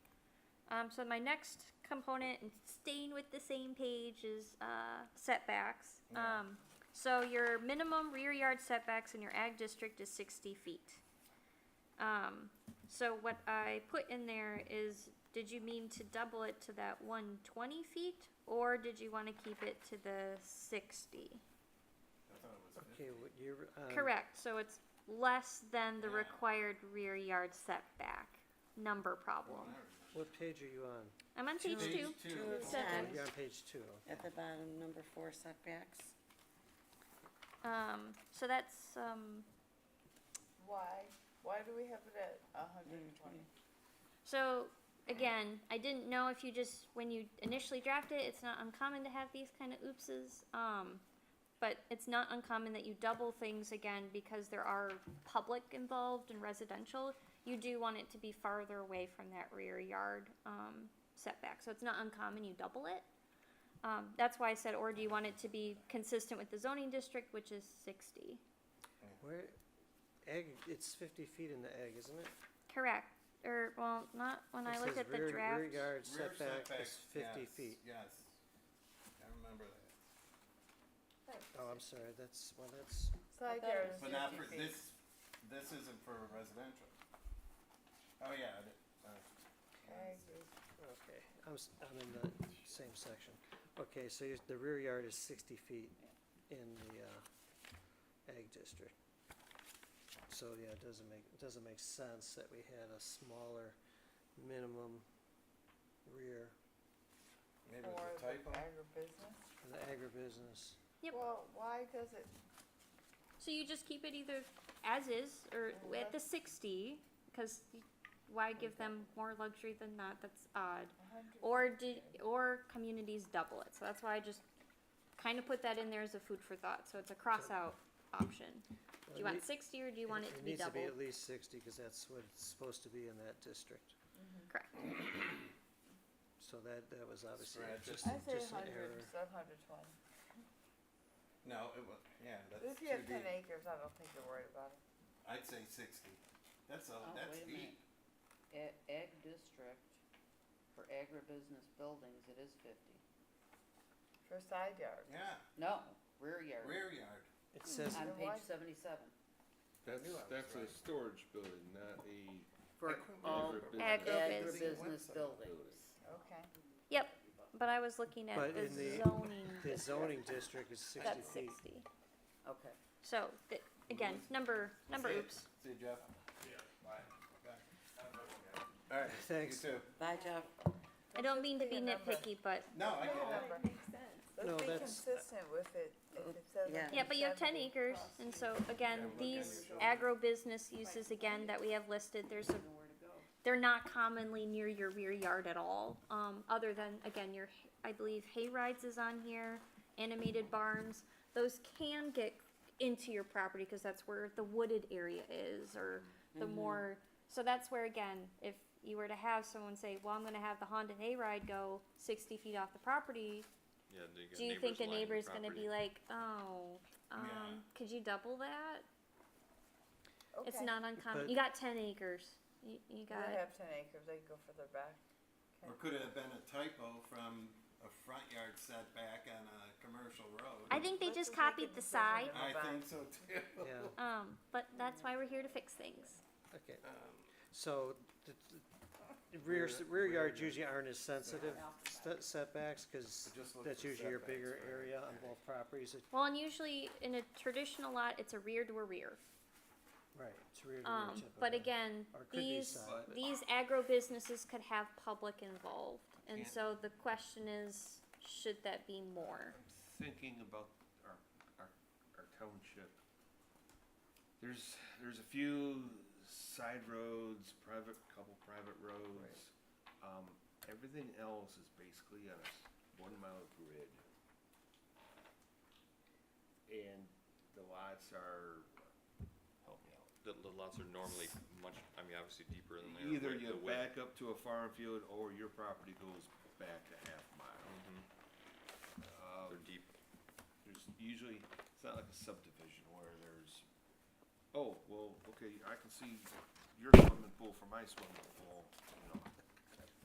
Um, so my next component, and staying with the same page, is uh, setbacks. Yeah. Um, so your minimum rear yard setbacks in your ag district is sixty feet. Um, so what I put in there is, did you mean to double it to that one twenty feet, or did you want to keep it to the sixty? I thought it was Okay, fifty. what you're, um. Correct, so it's less than the Uh, Yeah. required rear yard setback number problem. What page are you on? Oh, I'm on page Page two. two. Two of Seven. ten, You're on page two. at the bottom, number four setbacks. Um, so that's, um, Why? Why do we have it at a hundred and twenty? so again, I didn't know if you just, when you initially draft it, it's not uncommon to have these kind of oopses. Um, but it's not uncommon that you double things again because there are public involved and residential. You do want it to be farther away from that rear yard, um, setback, so it's not uncommon you double it. Um, that's why I said, or do you want it to be consistent with the zoning district, which is sixty? Where, egg, it's fifty feet in the egg, isn't it? Correct, or, well, not when I It look says at the rear- draft. Rear yard Rear setback is setbacks, fifty yes, feet. Yes, I remember that, Oh, I'm sorry, that's, well, that's, Mm-hmm. So I there is but not for, fifty feet. this, this isn't for residential. Oh, yeah, it- uh, I agree. okay, I'm, s- I'm in the same section. Okay, so you're- the rear yard is sixty feet in the, uh, egg district. So, yeah, it doesn't make, it doesn't make sense that we had a smaller minimum rear maybe Or it's a the typo. agribusiness. for the agribusiness. Yep. Well, why does it, So you just keep it either as is or at the sixty, because why give them more luxury than that? That's odd. a hundred? Or do, or communities double it. So that's why I just kind of put that in there as a food for thought. So it's a cross out option. Do you Well, want sixty or do you want it to be It needs to be doubled? at least sixty, cause that's what it's supposed to be in that district. Mm-hmm. Correct. So that, that was obviously Scratch it. just, I say just an hundred, error. so hundred twenty. No, it was, yeah, that's If too you have ten deep, acres, I don't think you're worried about it. I'd say sixty, that's a, Oh, that's wait a deep, minute. Ag, E, ag district for agribusiness buildings, it is fifty. For a side yard. yeah, No, rear yard. rear yard, It says, On So why- page seventy-seven. That's, knew I was that's a right. storage building, not a For couldn't all remember. Agribusiness. agribusiness Website. buildings. Okay. Yep, but I was looking at But the in the- zoning. the district. zoning district is sixty That's feet. sixty. Okay. So, th- again, number, number See ya. oops. see ya, Jeff? Yeah. Alright, you Thanks. too, Bye, Jeff. I don't mean to be Be a number. nitpicky, but no, I get it. Remember, No, Let's be that's- consistent with it, if it says. Yeah. Yeah, but you have ten 170. acres, and so again, Yeah, look at these your agro-business uses again that we have listed, there's a, they're not commonly near your rear yard at all. Um, other than, again, your, I believe hay rides is on here, animated barns, those can get into your property, cause that's where the wooded area is, or the more, so that's where, again, if you were to have someone say, well, I'm gonna have the Honda hayride go sixty feet off the property, Yeah, do you, get do you think the lining neighbor's gonna be property? like, oh, um, Yeah. could you double that? It's Okay. not uncommon. But- You got ten acres. You, you You got have ten acres, they can go further back. Or could it have been a typo from a front yard setback on a commercial road? I think they Let's just just make copied it the decision side. to- I think so too. Yeah. Um, but that's why we're here to fix things. Okay, Um, so the, the rear, s- Rear- rear rear yards yard. usually aren't as sensitive st- setbacks, cause But just look that's for usually your setbacks, bigger right? area on both properties, It- Well, and usually in a traditional lot, it's a rear to a rear. right, it's rear to rear Um, but typically. again, Or could be these, side, but- these agro businesses could have public involved. And Can't- so the question is, should that be more? Thinking about our, our, our township, there's, there's a few side roads, private, couple private roads. Um, everything else is basically on a s- one mile grid. And the lots are, help me out. The, the lots are normally much, I mean, obviously deeper than they are. Either wi- you the width. back up to a farm field or your property goes back a half mile. Um, They're deep. there's usually, it's not like a subdivision where there's, oh, well, okay, I can see your swimming pool from my swimming pool, you know,